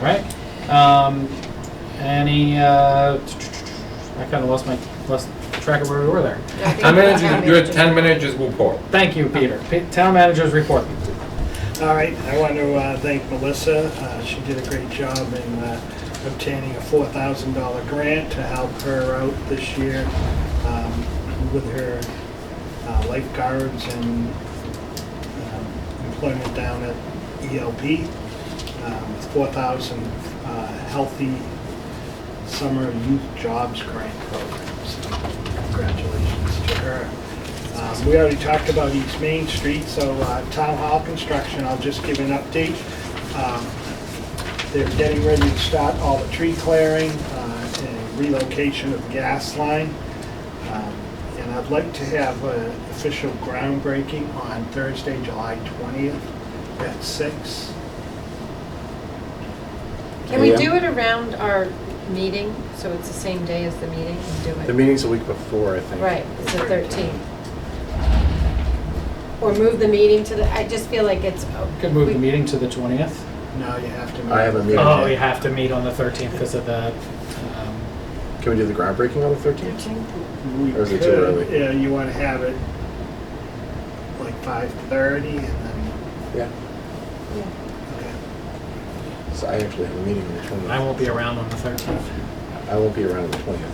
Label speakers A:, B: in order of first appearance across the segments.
A: right? Um, any, uh, I kind of lost my, lost track of where we were there.
B: Town manager, your town manager's report.
A: Thank you, Peter. P- Town managers report.
C: All right, I want to uh, thank Melissa. Uh, She did a great job in uh, obtaining a $4,000 grant to help her out this year um, with her uh, lifeguards and um, employment down at ELP. um, with 4,000 uh, Healthy Summer Youth Jobs Grant Program. So Congratulations to her. Um, We already talked about East Main Street, so uh, Town Hall construction, I'll just give an update. Um, They're getting ready to start all the tree clearing uh, and relocation of gas line. Um, And I'd like to have an official groundbreaking on Thursday, July 20th at six.
D: Can we do it around our meeting, so it's the same day as the meeting and do it?
E: The meeting's a week before, I think.
D: Right, it's the 13th. Or move the meeting to the, I just feel like it's. oh,
A: Could move the
D: we-
A: meeting to the 20th.
C: No, you have to.
E: I have a meeting.
A: Oh,
E: day.
A: we have to meet on the 13th because of the, um,
E: Can we do the groundbreaking on the 13th?
D: 13th?
C: We
E: Or is it too
C: could,
E: early?
C: Yeah, you want to have it like 5:30 and then,
E: Yeah.
D: Yeah.
C: okay.
E: So I actually have a meeting on the 20th.
A: I won't be around on the 13th.
E: I won't be around on the 20th.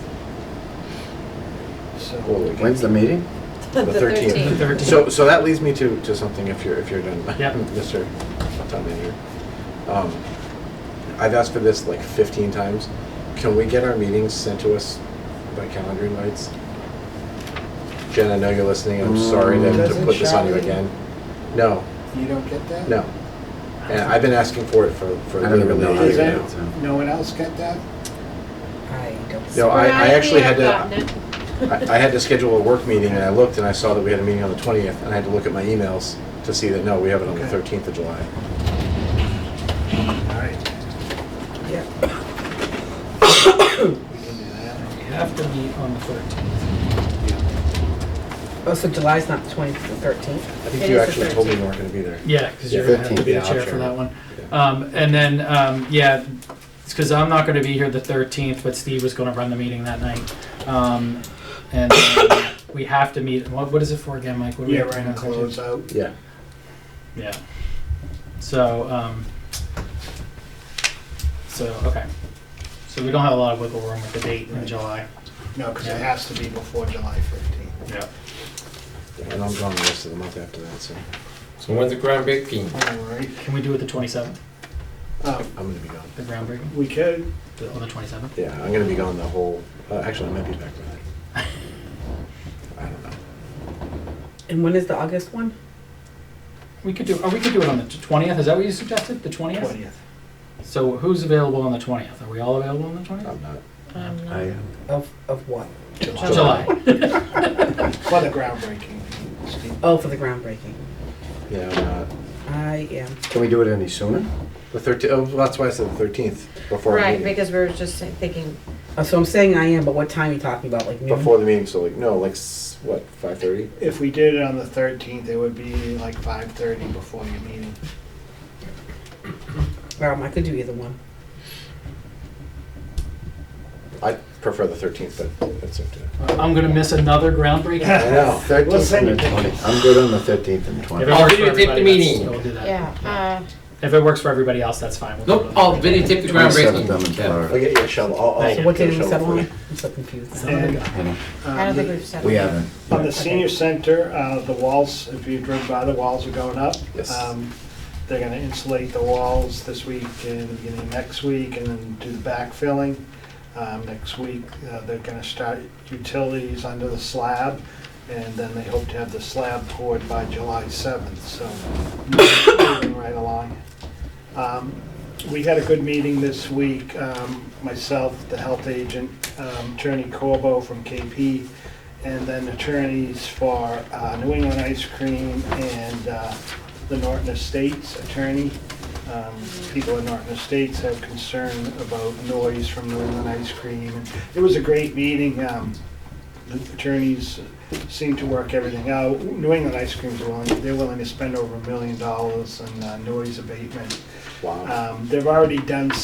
C: So
E: Holy cow.
F: When's the meeting?
D: The 13th.
A: The 13th.
E: So, so that leads me to, to something if you're, if you're done,
A: Yep.
E: Mr. Town Manager. Um, I've asked for this like 15 times. Can we get our meetings sent to us by calendar invites? Jen, I know you're listening. I'm sorry to- to
C: Doesn't
E: put this on you
C: Charlie-
E: again. No,
C: you don't get that?
E: no. And I've been asking for it for, for
F: I don't even
E: literally
F: know
E: a
F: how to
C: Is
E: year
C: that-
F: get
E: now.
F: it. so.
C: No one else got that?
G: I don't.
E: No, I, I actually had
D: Sporadically,
E: to,
D: I've gotten it.
E: I I had to schedule a work meeting and I looked and I saw that we had a meeting on the 20th and I had to look at my emails to see that, no, we have it on the
C: Okay.
E: 13th of July.
C: All right.
G: Yeah.
C: We can do
A: We
C: that.
A: have to meet on the 13th.
G: Oh, so July's not the 20th, the 13th?
E: I think
D: It
E: you
D: is the
E: actually told me you
D: 13th.
E: weren't going to be there.
A: Yeah, because you're
E: Yeah,
A: going to have to
E: 15th,
A: be the
E: yeah, I'll
A: chair for
E: share.
A: that one.
E: Yeah.
A: Um, and then, um, yeah, it's because I'm not going to be here the 13th, but Steve was going to run the meeting that night. Um, and then we have to meet. What, what is it for again, Mike? What do we
C: Yeah,
A: have to
C: right,
A: meet
C: and
A: on the 13th?
C: close out.
E: Yeah.
A: Yeah. So, um, so, okay. So we don't have a lot of wiggle room with the date in
C: Right.
A: July.
C: No, because it has to be before July 15th.
A: Yeah.
E: And I'm gone the rest of the month after that, so
B: So when's the groundbreaking?
C: All right.
A: Can we do it the 27th,
C: Oh,
E: I'm going to be gone.
A: the groundbreaking,
C: We could,
A: The- on the 27th?
E: Yeah, I'm going to be gone the whole, uh, actually, I might be back by then. I don't know.
G: And when is the August one?
A: We could do, or we could do it on the 20th, is that what you suggested, the 20th?
C: 20th.
A: So who's available on the 20th? Are we all available on the 20th?
E: I'm not.
D: Um,
F: I am.
G: Of, of what?
B: Uh,
A: July.
C: For the groundbreaking, Steve.
G: Oh, for the groundbreaking.
E: Yeah, I'm not.
G: I am.
F: Can we do it any sooner?
E: The 13th, oh, that's why I said the 13th, before the
D: Right,
E: meeting.
D: because we were just thinking,
G: Oh, so I'm saying I am, but what time are you talking about? Like noon?
E: Before the meeting, so like, no, like, s- what, 5:30?
C: If we did it on the 13th, it would be like 5:30 before your meeting.
G: Um, I could do either one.
E: I prefer the 13th, but that's up to
A: I'm gonna miss another groundbreaking.
E: I know.
F: 13th
C: send
F: and the
C: you
F: 20th. I'm good on the 13th and
A: If it
F: 20th.
B: I'll
A: works for
B: videotape the
A: everybody, that's-
B: meeting.
A: We'll do that.
D: yeah,
A: If it works for everybody else, that's fine. We'll do it
B: Nope,
A: on the
B: I'll
A: 13th.
B: videotape the
F: Twenty-seventh, I'm in
B: groundbreaking. Yeah.
F: Florida.
E: Okay, yeah, shuttle, I'll, I'll.
A: Yeah,
G: So what day did
E: shuttle
G: we settle
E: for
G: on?
E: you.
G: I'm so confused.
A: Son of a
C: And,
A: gun.
F: You know,
C: uh,
D: uh, I don't think
C: the-
D: we've said.
F: We
D: that.
F: haven't.
C: On the senior center, uh, the walls, if you drove by, the walls are going up.
E: Yes.
C: Um, They're going to insulate the walls this week and the beginning of next week and then do the backfilling. Um, Next week, uh, they're going to start utilities under the slab and then they hope to have the slab poured by July 7th, so moving right along. Um, We had a good meeting this week, um, myself, the health agent, um, Attorney Corbo from KP, and then attorneys for uh, New England Ice Cream and uh, the Norton Estates attorney. Um, People in Norton Estates have concern about noise from New England Ice Cream. It was a great meeting. Um, The attorneys seem to work everything out. New England Ice Cream's willing, they're willing to spend over a million dollars on uh, noise abatement.
E: Wow.
C: Um, They've already done